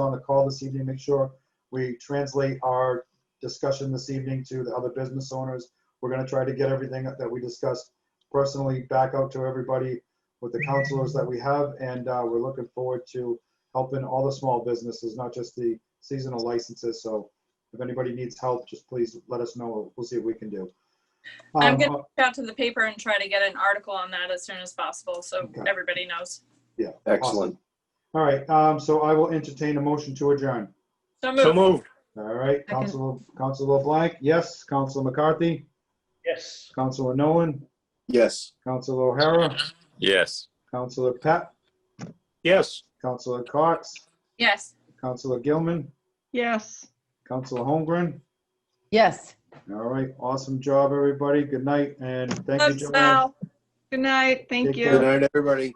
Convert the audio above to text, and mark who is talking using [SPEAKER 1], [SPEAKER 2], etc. [SPEAKER 1] on the call this evening, make sure we translate our discussion this evening to the other business owners. We're gonna try to get everything that we discussed personally back out to everybody with the counselors that we have, and uh, we're looking forward to helping all the small businesses, not just the seasonal licenses. So if anybody needs help, just please let us know. We'll see what we can do.
[SPEAKER 2] I'm
[SPEAKER 1] Um,
[SPEAKER 2] gonna reach out to the paper and try to get an article on that as soon as possible, so
[SPEAKER 1] Okay.
[SPEAKER 2] everybody knows.
[SPEAKER 3] Excellent.
[SPEAKER 1] All right, um, so I will entertain a motion to adjourn.
[SPEAKER 2] So
[SPEAKER 3] So
[SPEAKER 2] move.
[SPEAKER 3] moved.
[SPEAKER 1] All right,
[SPEAKER 4] Second.
[SPEAKER 1] Council, Council LeBlanc, yes. Council McCarthy,
[SPEAKER 5] Yes.
[SPEAKER 1] Council Nolan,
[SPEAKER 3] Yes.
[SPEAKER 1] Council O'Hara,
[SPEAKER 6] Yes.
[SPEAKER 1] Council Pat,
[SPEAKER 3] Yes.
[SPEAKER 1] Council Cox,
[SPEAKER 2] Yes.
[SPEAKER 1] Council Gilman,
[SPEAKER 4] Yes.
[SPEAKER 1] Council Holmgren.
[SPEAKER 4] Yes.
[SPEAKER 1] All right, awesome job, everybody. Good night, and thank you,
[SPEAKER 2] Love
[SPEAKER 1] Joanne.
[SPEAKER 2] Sal.
[SPEAKER 4] Good night. Thank
[SPEAKER 1] Take
[SPEAKER 4] you.
[SPEAKER 1] care.
[SPEAKER 3] Good night, everybody.